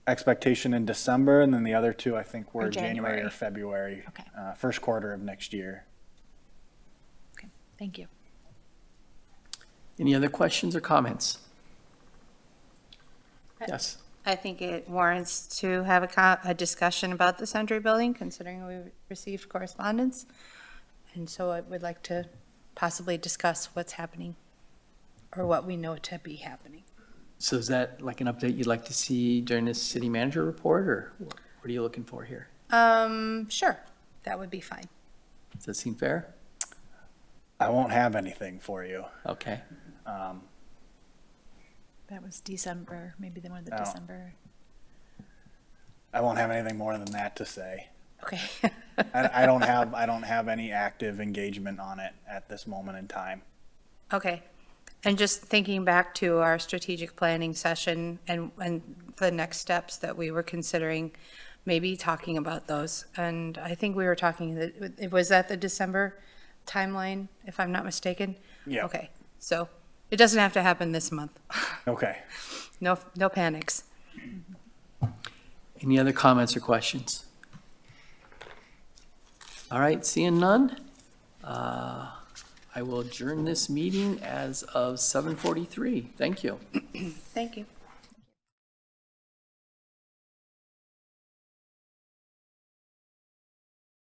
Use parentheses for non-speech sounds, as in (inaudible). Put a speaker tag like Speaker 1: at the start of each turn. Speaker 1: expectation in December, and then the other two, I think, were
Speaker 2: Or
Speaker 1: January or
Speaker 2: January.
Speaker 1: February.
Speaker 2: Okay.
Speaker 1: uh, First quarter of next year.
Speaker 2: Okay, thank you.
Speaker 3: Any other questions or comments? Yes,
Speaker 4: I think it warrants to have a, co- a discussion about the Sundry Building, considering we received correspondence. And so I would like to possibly discuss what's happening or what we know to be happening.
Speaker 3: so is that like an update you'd like to see during this city manager report, or what are you looking for here?
Speaker 4: Um, sure, that would be fine.
Speaker 3: Does that seem fair?
Speaker 1: I won't have anything for you.
Speaker 3: Okay,
Speaker 1: Um,
Speaker 2: That was December, maybe the one of the
Speaker 1: Oh.
Speaker 2: December.
Speaker 1: I won't have anything more than that to say.
Speaker 4: Okay. (laughs)
Speaker 1: I, I don't have, I don't have any active engagement on it at this moment in time.
Speaker 4: Okay. And just thinking back to our strategic planning session and, and the next steps that we were considering, maybe talking about those. And I think we were talking, that it was at the December timeline, if I'm not mistaken?
Speaker 1: Yeah.
Speaker 4: Okay, so it doesn't have to happen this month.
Speaker 1: Okay.
Speaker 4: No, no panics.
Speaker 3: any other comments or questions? All right, seeing none, uh, I will adjourn this meeting as of 7:43. Thank you.
Speaker 4: Thank you.